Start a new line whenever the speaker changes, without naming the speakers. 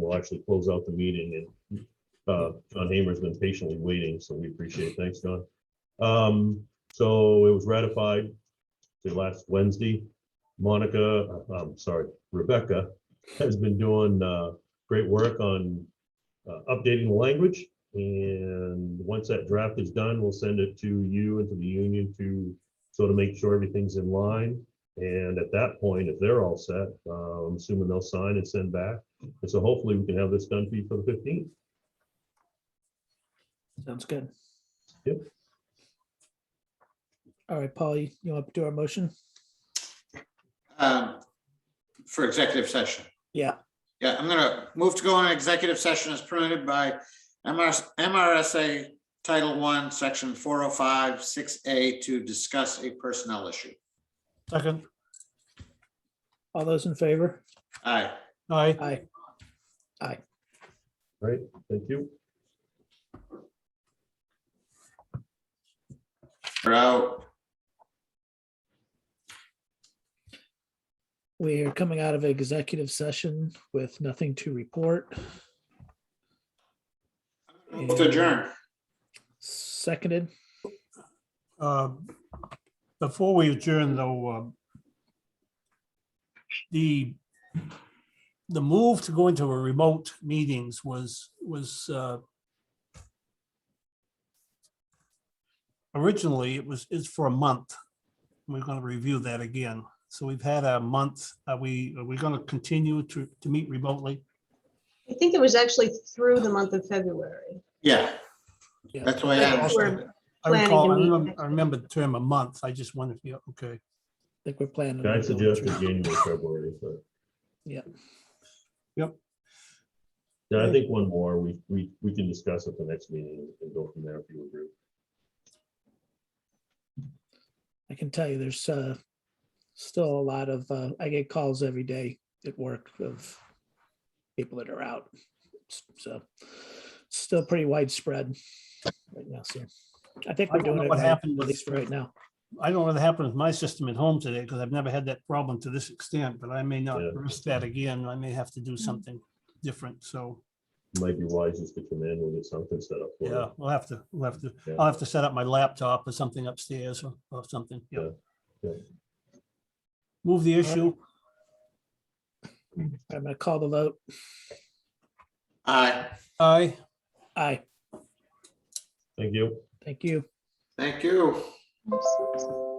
we'll actually close out the meeting and uh, John Hamer's been patiently waiting, so we appreciate it. Thanks, John. Um, so it was ratified the last Wednesday. Monica, uh, I'm sorry, Rebecca has been doing uh, great work on uh, updating the language. And once that draft is done, we'll send it to you and to the union to sort of make sure everything's in line. And at that point, if they're all set, uh, I'm assuming they'll sign and send back. And so hopefully we can have this done for you for the fifteenth.
Sounds good.
Yep.
All right, Paul, you you want to do our motion?
um, for executive session.
Yeah.
Yeah, I'm gonna move to go on executive session as permitted by MRS MRSA Title One, Section four oh five, six A to discuss a personnel issue.
Second,
All those in favor?
Aye.
aye.
Aye.
Right, thank you.
we're out.
We are coming out of executive session with nothing to report.
Move to adjourn.
Seconded.
Uh, Before we adjourn though, um, the, the move to go into a remote meetings was, was uh, originally it was, is for a month. We're going to review that again. So we've had a month. Are we, are we going to continue to, to meet remotely?
I think it was actually through the month of February.
Yeah.
Yeah.
That's why I understand. it.
I
Planning to
recall, I
meet
remember-
next
I remember the term a month. I just wondered, if you okay.
I think we're planning. on
I
doing
suggested
it.
January, February, but.
Yeah.
Yep.
Yeah, I think one more, we, we, we can discuss at the next meeting and go from there if you agree.
I can tell you, there's uh, still a lot of, uh, I get calls every day at work of people that are out. So still pretty widespread right now, so I think
I
we're
don't know
doing it
what
right, at
happened with-
least for right now.
I don't know what happened with my system at home today because I've never had that problem to this extent, but I may not
Yeah.
risk that again. I may have to do something different. So,
Might be wise just to come in, we'll get something set up. for you.
yeah, we'll have to, we'll have to,
Yeah.
I'll have to set up my laptop or something upstairs or, or something. Yeah.
Yeah, yeah.
Move the
right.
issue.
I'm gonna call the vote.
Aye.
Aye.
Aye,
Thank you.
thank you.
Thank you.
Oops.